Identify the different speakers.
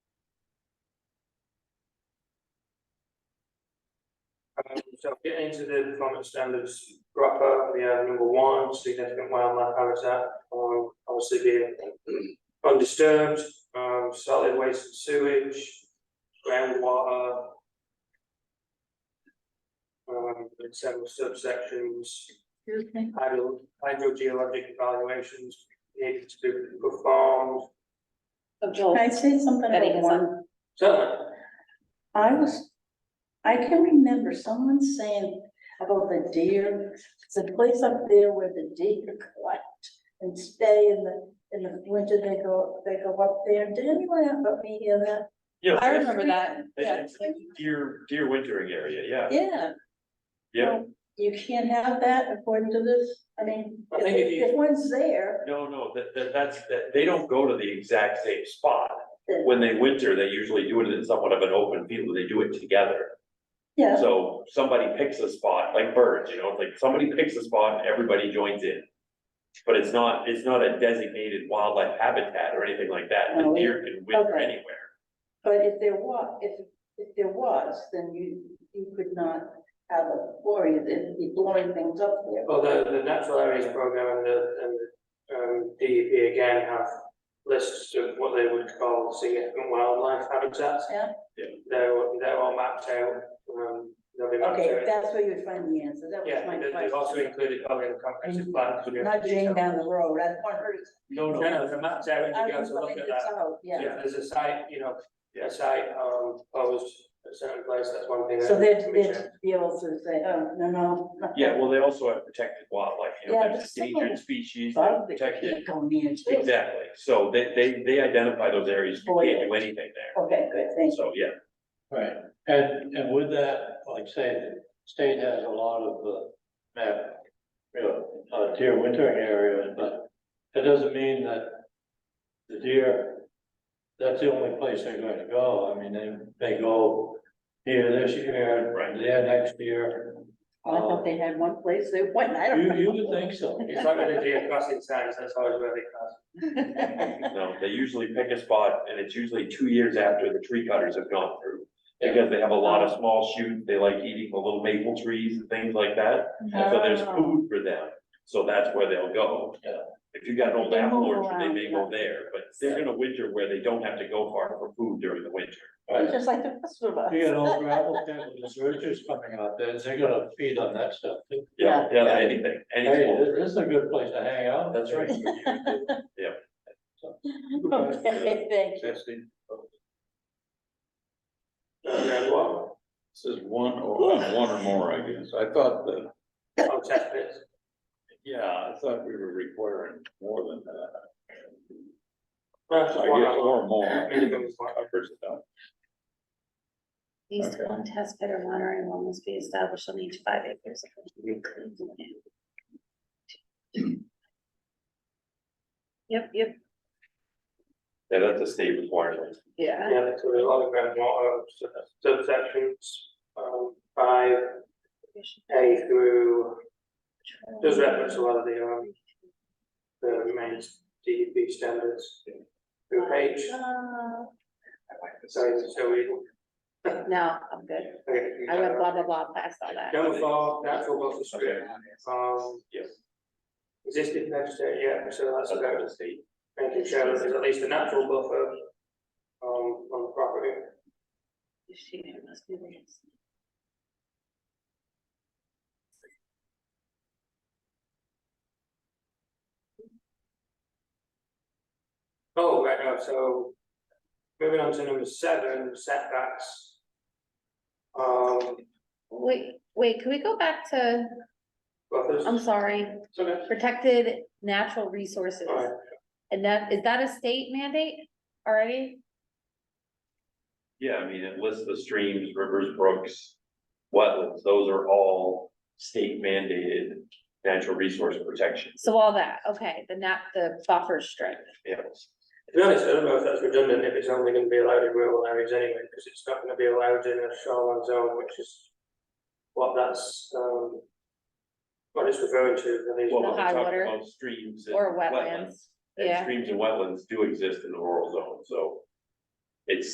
Speaker 1: Um, So get into the performance standards proper, we have number one, significant wildlife habitat, um, obviously being undisturbed, um, solid waste and sewage, groundwater. Um, in several subsections,
Speaker 2: Excuse me,
Speaker 1: hydro, hydrogeologic evaluations needed to be performed,
Speaker 2: can
Speaker 3: Of Joel.
Speaker 2: I say something
Speaker 3: Betty
Speaker 2: about
Speaker 3: has
Speaker 2: one?
Speaker 1: certainly.
Speaker 2: I was, I can remember someone saying about the deer, it's a place up there where the deer collect and stay in the, in the winter, they go, they go up there. Did anyone but me hear that?
Speaker 4: Yeah.
Speaker 3: I remember that, yeah.
Speaker 4: It's deer, deer wintering area, yeah,
Speaker 2: Yeah.
Speaker 4: yeah.
Speaker 2: Well, You can't have that according to this, I mean,
Speaker 1: I
Speaker 2: if,
Speaker 1: think if you-
Speaker 2: if one's there,
Speaker 4: No, no, that, that, that's, that, they don't go to the exact same spot.
Speaker 2: then,
Speaker 4: When they winter, they usually do it in somewhat of an open field, they do it together.
Speaker 2: yeah,
Speaker 4: So somebody picks a spot, like birds, you know, it's like somebody picks a spot and everybody joins in. But it's not, it's not a designated wildlife habitat or anything like that, the
Speaker 2: No,
Speaker 4: deer can winter
Speaker 2: okay.
Speaker 4: anywhere.
Speaker 2: but if there was, if, if there was, then you, you could not have a quarry, it'd be blowing things up there.
Speaker 1: Well, the, the natural areas program and the, and the, um, DEP again have lists of what they would call significant wildlife habitats.
Speaker 2: Yeah.
Speaker 4: Yeah.
Speaker 1: They're, all- they're all mapped out, um, they'll be mapped
Speaker 2: Okay,
Speaker 1: out.
Speaker 2: that's where you'd find the answer, that was
Speaker 1: Yeah,
Speaker 2: my
Speaker 1: they- they've also
Speaker 2: question.
Speaker 1: included all in the comprehensive plan. because we have
Speaker 2: Not Jane
Speaker 1: detail.
Speaker 2: down the road, I want her to.
Speaker 4: No,
Speaker 1: No, no, they're mapped out, and
Speaker 2: I
Speaker 1: you go
Speaker 2: was
Speaker 1: to look
Speaker 2: looking
Speaker 1: at
Speaker 2: this
Speaker 1: that.
Speaker 2: out, Yeah,
Speaker 1: If there's a site, you know,
Speaker 4: Yeah.
Speaker 1: a site, um, posed at a certain place, that's one thing. that
Speaker 2: so they'd,
Speaker 1: can be
Speaker 2: they'd
Speaker 1: checked.
Speaker 2: be able to say, oh, no, no. no.
Speaker 4: Yeah, well, they also have protected wildlife, you
Speaker 2: Yeah,
Speaker 4: know, there's
Speaker 2: but some of
Speaker 4: endangered
Speaker 2: the
Speaker 4: species, they're
Speaker 2: Bug that you
Speaker 4: protected.
Speaker 2: can't go near. too.
Speaker 4: Exactly, so they, they, they identify those areas, you can't do anything
Speaker 2: Okay, good,
Speaker 4: there,
Speaker 2: thank you.
Speaker 4: so, yeah.
Speaker 5: Right, and, and with that, like say, the state has a lot of, uh, map, you know, uh, deer wintering areas, but that doesn't mean that the deer, that's the only place they're going to go, I mean, they, they go here this year,
Speaker 4: Right.
Speaker 5: there next year.
Speaker 2: I thought they had one place, they went, I don't
Speaker 5: You,
Speaker 2: know.
Speaker 5: you would think so.
Speaker 1: It's not gonna be a crossing signs, that's always where they cross.
Speaker 4: No, they usually pick a spot and it's usually two years after the tree cutters have gone through. Because they have a lot of small shoots, they like eating the little maple trees and things like that, and so there's
Speaker 2: Oh.
Speaker 4: food for them, so that's where they'll go.
Speaker 5: Yeah.
Speaker 4: If you got an old
Speaker 2: They
Speaker 4: apple
Speaker 2: move
Speaker 4: orchard, they may
Speaker 2: around,
Speaker 4: go
Speaker 2: yeah.
Speaker 4: there, but they're gonna winter where they don't have to go far for food during the winter.
Speaker 5: Right.
Speaker 2: Just like the rest of us.
Speaker 5: You got old gravel pit with the searchers coming out there, they're gonna feed on that stuff. too.
Speaker 4: Yeah,
Speaker 2: Yeah.
Speaker 4: yeah, anything,
Speaker 5: Hey,
Speaker 4: anything.
Speaker 5: this- this is a good place to hang out.
Speaker 4: That's right.
Speaker 2: Okay, thank you.
Speaker 1: And what,
Speaker 6: This is one or, one or more, I guess. I thought that,
Speaker 1: oh, test pits.
Speaker 6: yeah, I thought we were requiring more than that.
Speaker 1: That's
Speaker 6: I
Speaker 1: one
Speaker 6: guess
Speaker 1: of
Speaker 6: or more.
Speaker 1: Minimum is one.
Speaker 6: Covers it up.
Speaker 3: Least
Speaker 6: Okay.
Speaker 3: one test pit or monitoring will must be established on each five acres. Yep, yep,
Speaker 4: Yeah, that's a state requirement.
Speaker 3: yeah.
Speaker 1: Yeah, that's what a lot of groundwater uh, subsections, um, five A through, does reference a lot of the, um, the main DEP standards. Through H,
Speaker 3: Uh,
Speaker 1: sorry, so we.
Speaker 3: No, I'm good. I went blah, blah, blah, past all that.
Speaker 1: Number four, natural buffer strip, um,
Speaker 4: Yes.
Speaker 1: existing vegetation, yeah, so that's
Speaker 4: That's
Speaker 1: about
Speaker 4: a state.
Speaker 1: making sure that there's at least a natural buffer, um, on the property.
Speaker 3: She must be raised.
Speaker 1: Oh, right, no, so moving on to number seven, setbacks. Um,
Speaker 3: Wait, wait, can we go back to,
Speaker 1: buffers,
Speaker 3: I'm sorry,
Speaker 1: It's okay.
Speaker 3: protected natural resources?
Speaker 1: Alright.
Speaker 3: And that, is that a state mandate already?
Speaker 4: Yeah, I mean, it lists the streams, rivers, brooks, wetlands, those are all state mandated natural resource protection.
Speaker 3: So all that, okay, the nat, the buffer strip.
Speaker 4: Yes.
Speaker 1: To be honest, I don't know if that's redundant, if it's only gonna be allowed in rural areas anyway, because it's not gonna be allowed in a shoreline zone, which is what that's, um, what it's referring to, the
Speaker 4: Well,
Speaker 1: least.
Speaker 4: we're
Speaker 3: high
Speaker 4: talking
Speaker 3: water
Speaker 4: about Streams and
Speaker 3: Or
Speaker 4: wetlands.
Speaker 3: wetlands, yeah.
Speaker 4: And streams and wetlands do exist in the rural zone, so it's